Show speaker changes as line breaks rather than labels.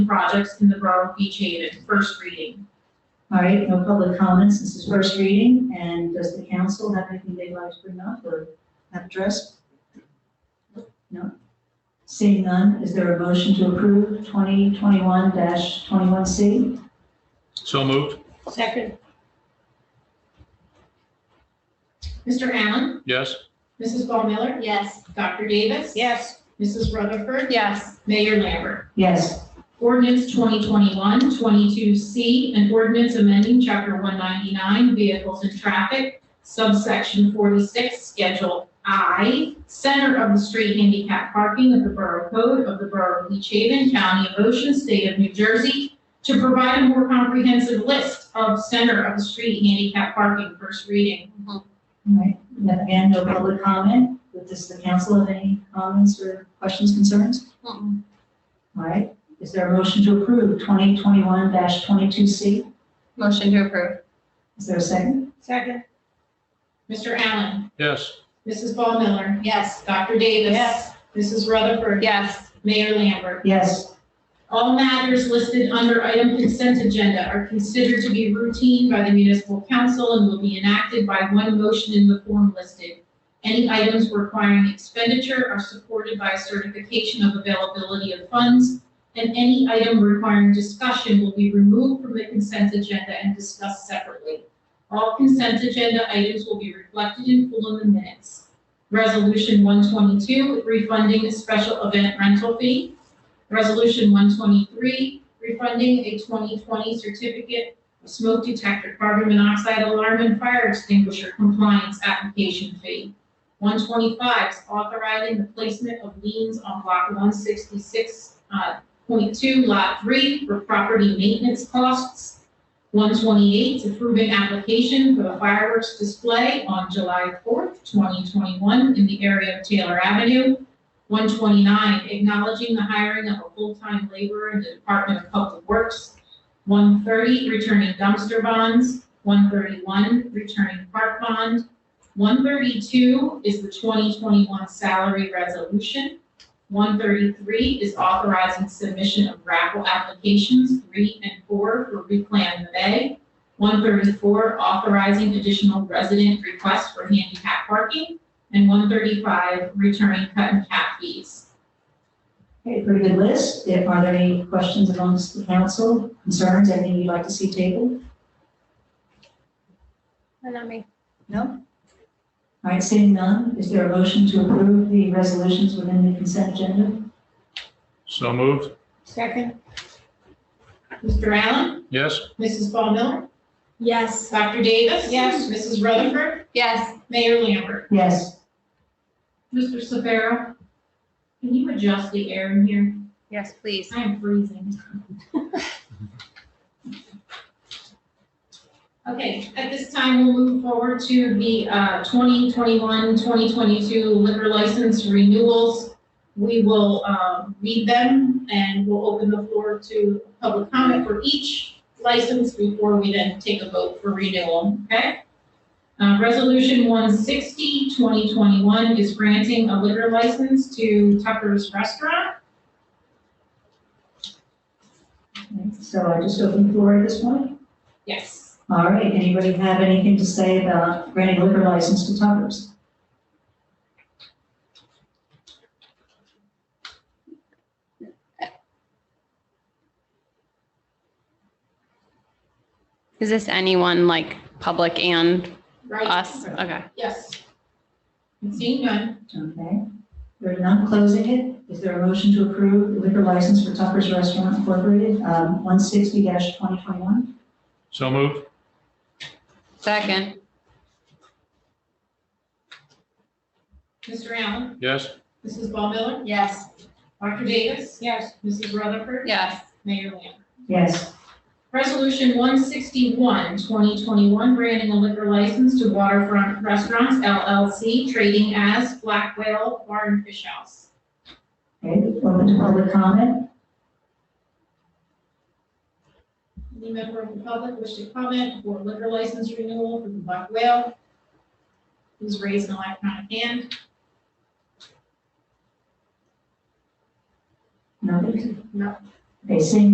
projects in the Broward Beach Haven, first reading.
All right, no public comments, this is first reading, and does the council have anything they'd like to bring up or have addressed? No? Seeing none, is there a motion to approve 2021-21C?
So moved.
Second,
Mr. Allen?
Yes.
Mrs. Ball Miller?
Yes.
Dr. Davis?
yes.
Mrs. Rutherford?
Yes.
Mayor Lambert?
Yes.
Ordinance 2021-22C, an ordinance amending Chapter 199 Vehicles and Traffic, subsection 46, Schedule I, Center of the Street Handicap Parking of the Borough Code of the Borough of Beach Haven, County of Ocean, State of New Jersey, to provide a more comprehensive list of center of the street handicap parking, first reading.
All right, and then again, no public comment, but does the council have any comments or questions, concerns?
Mm-mm.
All right, is there a motion to approve 2021-22C?
Motion to approve.
Is there a second?
Second,
Mr. Allen?
Yes.
Mrs. Ball Miller?
Yes.
Dr. Davis?
Yes.
Mrs. Rutherford?
Yes.
Mayor Lambert?
Yes.
All matters listed under item consent agenda are considered to be routine by the municipal council and will be enacted by one motion in the form listed. Any items requiring expenditure are supported by certification of availability of funds, and any item requiring discussion will be removed from the consent agenda and discussed separately. All consent agenda items will be reflected in full in the minutes. Resolution 122, refunding special event rental fee. Resolution 123, refunding a 2020 certificate of smoke detector, carbon monoxide alarm, and fire extinguisher compliance application fee. 125 is authorizing the placement of liens on block 166.2, lot 3 for property maintenance costs. 128 is approving application for the fireworks display on July 4th, 2021 in the area of Taylor Avenue. 129, acknowledging the hiring of a full-time laborer in the Department of Public Works. 130, returning dumpster bonds. 131, returning park bond. 132 is the 2021 salary resolution. 133 is authorizing submission of raffle applications, three and four, for Replan the Bay. 134, authorizing additional resident requests for handicap parking and one thirty-five returning cut and cap fees.
Okay, pretty good list. There- Are there any questions amongst the council, concerns, anything you'd like to see tabled?
And not me.
No? All right, seeing none, is there a motion to approve the resolutions within the consent agenda?
So moved.
second,
Mr. Allen?
Yes.
Mrs. Ball Miller?
Yes.
Dr. Davis?
Yes.
Mrs. Rutherford?
Yes.
Mayor Lambert?
Yes.
Mr. Severo? Can you adjust the air in here?
Yes, please.
I am freezing. Okay, at this time, we'll move forward to the uh, 2021, 2022 liquor license renewals. We will um, read them and we'll open the floor to public comment for each license before we then take a vote for renewal, okay? Uh, Resolution 160, 2021 is granting a liquor license to Tucker's Restaurant.
So I just open the floor at this point.
Yes.
All right, anybody have anything to say about granting liquor license to Tuckers?
Is this anyone like public and
Right.
us? Okay.
Yes. Seeing none,
Okay. We're not closing it. Is there a motion to approve the liquor license for Tucker's Restaurant Incorporated, um, 160-2021?
So moved.
Second.
Mr. Allen,
Yes.
Mrs. Ball Miller,
Yes.
Dr. Davis,
yes.
Mrs. Rutherford,
Yes.
Mayor Lambert.
Yes,
Resolution 161, 2021, granting a liquor license to Waterfront Restaurants LLC, trading as Black Whale Bar and Fish House.
okay, open to public comment.
Any member of the public wish to comment for liquor license renewal for the Black Whale? Please raise an electronic hand.
Nobody?
No.
Okay, seeing